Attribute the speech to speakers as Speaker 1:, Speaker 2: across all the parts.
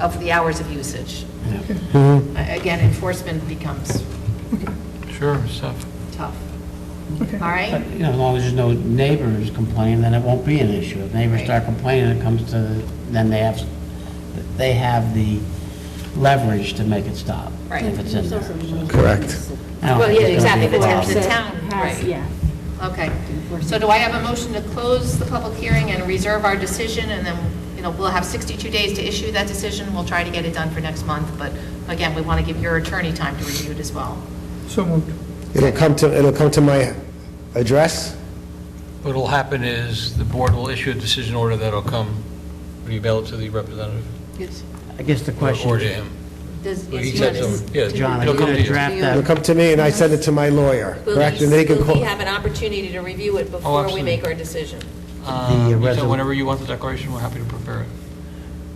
Speaker 1: of the hours of usage.
Speaker 2: Mm-hmm.
Speaker 1: A- Again, enforcement becomes
Speaker 3: Sure, stuff.
Speaker 1: tough.
Speaker 4: Okay.
Speaker 1: All right?
Speaker 2: But, you know, as long as there's no neighbors complaining, then it won't be an issue. If neighbors
Speaker 1: Right.
Speaker 2: start complaining, it comes to, then they have, they have the leverage to make it stop.
Speaker 1: Right.
Speaker 2: If it's in there. so.
Speaker 5: Correct.
Speaker 2: I don't
Speaker 1: Well,
Speaker 2: think
Speaker 1: yeah,
Speaker 2: it's gonna be
Speaker 1: exactly, the
Speaker 2: a
Speaker 1: town,
Speaker 2: problem.
Speaker 1: the town,
Speaker 6: Has-
Speaker 1: right.
Speaker 6: Yeah.
Speaker 1: Okay. So do I have a motion to close the public hearing and reserve our decision, and then, you know, we'll have 62 days to issue that decision. We'll try to get it done for next month, but again, we want to give your attorney time to review it as well.
Speaker 4: So moved.
Speaker 5: It'll come to, it'll come to my address?
Speaker 3: What'll happen is the board will issue a decision order that'll come, will you mail it to the representative?
Speaker 2: I guess the question,
Speaker 3: Or to
Speaker 2: is,
Speaker 3: him?
Speaker 1: Does-
Speaker 3: Well,
Speaker 1: yes,
Speaker 3: he
Speaker 1: you
Speaker 3: said
Speaker 1: want
Speaker 3: so.
Speaker 1: to-
Speaker 3: Yeah,
Speaker 2: John, are
Speaker 3: it'll
Speaker 2: you
Speaker 3: come
Speaker 2: going
Speaker 3: to
Speaker 2: to
Speaker 3: you.
Speaker 2: draft
Speaker 5: It'll
Speaker 2: that?
Speaker 5: come to me, and I send it to my lawyer,
Speaker 1: Will
Speaker 5: correct?
Speaker 1: he-
Speaker 5: And they can
Speaker 1: will he
Speaker 5: call-
Speaker 1: have an opportunity to review it before we
Speaker 3: absolutely.
Speaker 1: make our decision?
Speaker 3: Um, you said
Speaker 2: resol-
Speaker 3: Whenever you want the declaration, we're happy to prepare it.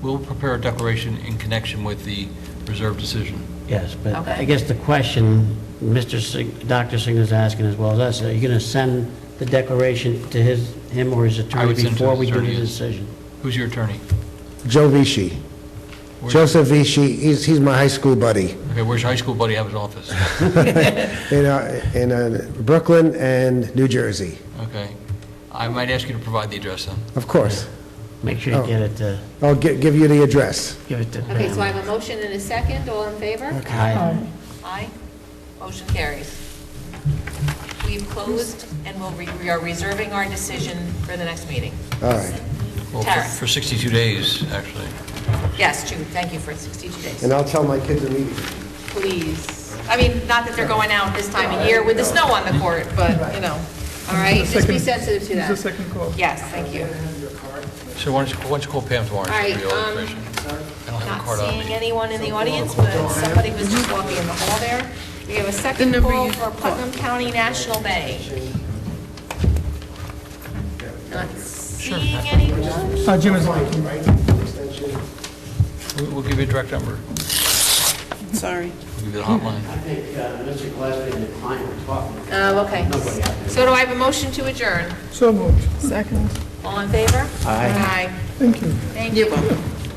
Speaker 3: We'll prepare a declaration in connection with the reserve decision.
Speaker 2: Yes, but I
Speaker 1: Okay.
Speaker 2: guess the question, Mr. Sig, Dr. Signa's asking as well as us, are you going to send the declaration to his, him or his attorney
Speaker 3: would send to
Speaker 2: before
Speaker 3: his
Speaker 2: we do the
Speaker 3: attorney, yes.
Speaker 2: decision?
Speaker 3: Who's your attorney?
Speaker 5: Joe Vici.
Speaker 3: Where's-
Speaker 5: Joseph Vici, he's, he's my high school buddy,
Speaker 3: Okay, where's your high school buddy have his office?
Speaker 5: in, uh, in uh, Brooklyn and New Jersey,
Speaker 3: Okay. I might ask you to provide the address then.
Speaker 5: of course.
Speaker 2: Make sure you
Speaker 5: Oh.
Speaker 2: get it to,
Speaker 5: I'll gi- give you the address.
Speaker 2: give it to Pam.
Speaker 1: Okay, so I have a motion and a second, all in favor?
Speaker 2: Aye.
Speaker 1: Aye. Motion carries. We've closed, and we'll, re- we are reserving our decision for the next meeting.
Speaker 5: All right.
Speaker 3: Well, for-
Speaker 1: Tara.
Speaker 3: For 62 days, actually.
Speaker 1: Yes, Jude, thank you for 62 days.
Speaker 5: And I'll tell my kids immediately.
Speaker 1: Please, I mean, not that they're going out this time of year with the snow on the court, but, you know, all right? Just be
Speaker 4: Second-
Speaker 1: sensitive to
Speaker 4: This
Speaker 1: that.
Speaker 4: is the second call.
Speaker 1: Yes, thank you.
Speaker 3: So why don't you, why don't you call Pam tomorrow? and
Speaker 1: All
Speaker 3: she'll give you
Speaker 1: right,
Speaker 3: all the
Speaker 1: um,
Speaker 3: information. I don't have a
Speaker 1: Not
Speaker 3: card on me.
Speaker 1: seeing anyone in the audience, but somebody was just walking in the hall there. We have a second call for Putnam County National Bank. Not seeing anyone?
Speaker 4: Uh, Jim is on.
Speaker 3: We- We'll give you a direct number.
Speaker 7: Sorry.
Speaker 3: We'll give you the hotline.
Speaker 2: think Mr. Gillespie and the client were talking.
Speaker 1: Oh, okay. So do I have a motion to adjourn?
Speaker 4: So moved.
Speaker 7: Second.
Speaker 1: All in favor? Aye.
Speaker 4: Thank you.
Speaker 1: Thank you.